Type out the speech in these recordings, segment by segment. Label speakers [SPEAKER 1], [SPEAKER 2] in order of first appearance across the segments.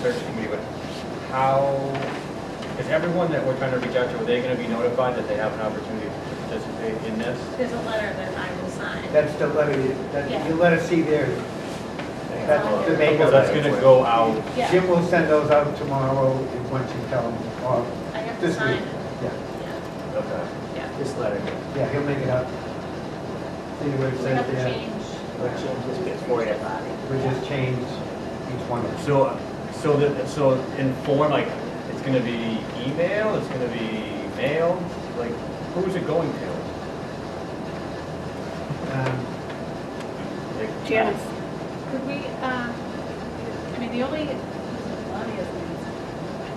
[SPEAKER 1] search committee, but how, is everyone that we're trying to reach out to, are they gonna be notified that they have an opportunity to participate in this?
[SPEAKER 2] There's a letter that I will sign.
[SPEAKER 3] That's the letter, you, that, you let us see there. That's the
[SPEAKER 1] Because
[SPEAKER 3] makeup.
[SPEAKER 1] that's gonna go out,
[SPEAKER 2] Yeah.
[SPEAKER 3] Jim will send those out tomorrow, and once you tell him, or
[SPEAKER 2] I have to
[SPEAKER 3] this
[SPEAKER 2] sign
[SPEAKER 3] week.
[SPEAKER 2] it.
[SPEAKER 3] Yeah,
[SPEAKER 2] Yeah,
[SPEAKER 1] okay.
[SPEAKER 2] yeah.
[SPEAKER 4] This letter, here.
[SPEAKER 3] yeah, he'll make it up. See what it
[SPEAKER 2] We have
[SPEAKER 3] says
[SPEAKER 2] to
[SPEAKER 3] there.
[SPEAKER 2] change.
[SPEAKER 4] Let's change this bit for you.
[SPEAKER 2] the body.
[SPEAKER 3] We just change each one. of them.
[SPEAKER 1] So, so that, so in form, like, it's gonna be email, it's gonna be mail, like, who's it going to?
[SPEAKER 3] Um,
[SPEAKER 1] Like,
[SPEAKER 5] Janice,
[SPEAKER 2] Could we, um, I mean, the only, Claudia's name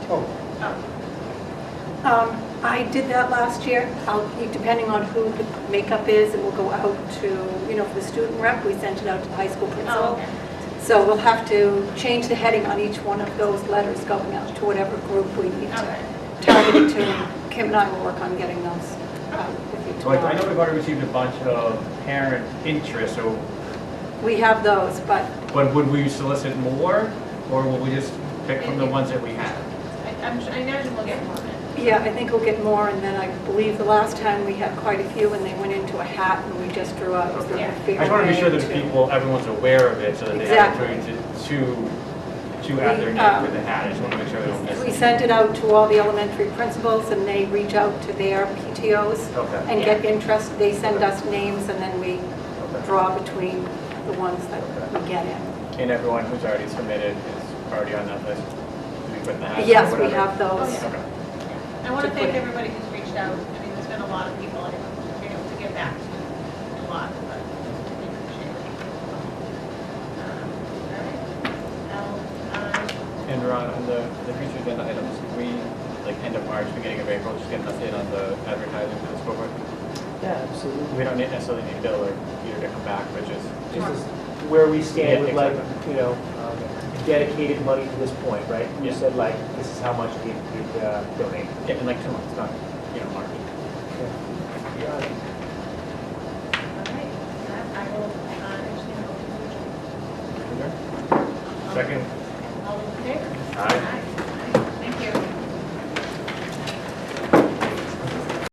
[SPEAKER 3] Oh,
[SPEAKER 2] is, oh,
[SPEAKER 5] um, I did that last year. I'll, depending on who the makeup is, it will go out to, you know, for the student rep, we sent it out to the high school
[SPEAKER 2] oh,
[SPEAKER 5] principal.
[SPEAKER 2] okay.
[SPEAKER 5] So we'll have to change the heading on each one of those letters going out to whatever group we need
[SPEAKER 2] Okay.
[SPEAKER 5] to target it to. Kim and I will work on getting those out with you
[SPEAKER 1] So like, Oh, I know
[SPEAKER 5] tomorrow.
[SPEAKER 1] we've already received a bunch of parent interest, so,
[SPEAKER 5] We have those, but
[SPEAKER 1] but would we solicit more? Or will we just pick from the ones that we have?
[SPEAKER 2] I, I'm, su- I imagine we'll get more of it.
[SPEAKER 5] Yeah, I think we'll get more, and then I believe the last time we had quite a few, and they went into a hat, and we just drew out.
[SPEAKER 1] Okay.
[SPEAKER 5] a
[SPEAKER 1] I
[SPEAKER 5] fair
[SPEAKER 1] just wanna be sure
[SPEAKER 5] name
[SPEAKER 1] that
[SPEAKER 5] to-
[SPEAKER 1] people, everyone's aware of it, so that they have the
[SPEAKER 5] Exactly.
[SPEAKER 1] opportunity to, to, to add their
[SPEAKER 5] We,
[SPEAKER 1] name
[SPEAKER 5] um,
[SPEAKER 1] with the hat, I just wanna make sure they don't miss
[SPEAKER 5] We
[SPEAKER 1] it.
[SPEAKER 5] sent it out to all the elementary principals, and they reach out to their PTOs
[SPEAKER 1] Okay,
[SPEAKER 5] and get interest, they send us names, and then we
[SPEAKER 1] okay.
[SPEAKER 5] draw between the ones that we get in.
[SPEAKER 1] And everyone who's already submitted is already on that list, to be put in the hat? or
[SPEAKER 5] Yes, we
[SPEAKER 1] whatever.
[SPEAKER 5] have
[SPEAKER 2] Oh,
[SPEAKER 5] those.
[SPEAKER 2] yeah.
[SPEAKER 1] Okay.
[SPEAKER 2] I want to
[SPEAKER 5] To
[SPEAKER 2] thank
[SPEAKER 5] put-
[SPEAKER 2] everybody who's reached out. I mean, there's been a lot of people I've been able to get back to, a lot, but I appreciate it. Um, all right. I'll, um,
[SPEAKER 1] And Ron, on the, the future agenda items, we, like, end of March, beginning of April, just get an update on the advertising for the school board.
[SPEAKER 4] Yeah, absolutely.
[SPEAKER 1] We don't need- necessarily need Bill or Peter to come back, but just,
[SPEAKER 4] This is where we stand with
[SPEAKER 1] Yeah,
[SPEAKER 4] like,
[SPEAKER 1] exactly.
[SPEAKER 4] you know, um, dedicated money to this point, right? You
[SPEAKER 1] Yeah.
[SPEAKER 4] said like, this is how much we could uh, donate.
[SPEAKER 1] yeah, in like two months, not, you know, March.
[SPEAKER 4] Yeah.
[SPEAKER 2] all right. I I will, uh, actually, I'll-
[SPEAKER 1] Second?
[SPEAKER 2] All in favor?
[SPEAKER 1] Aye.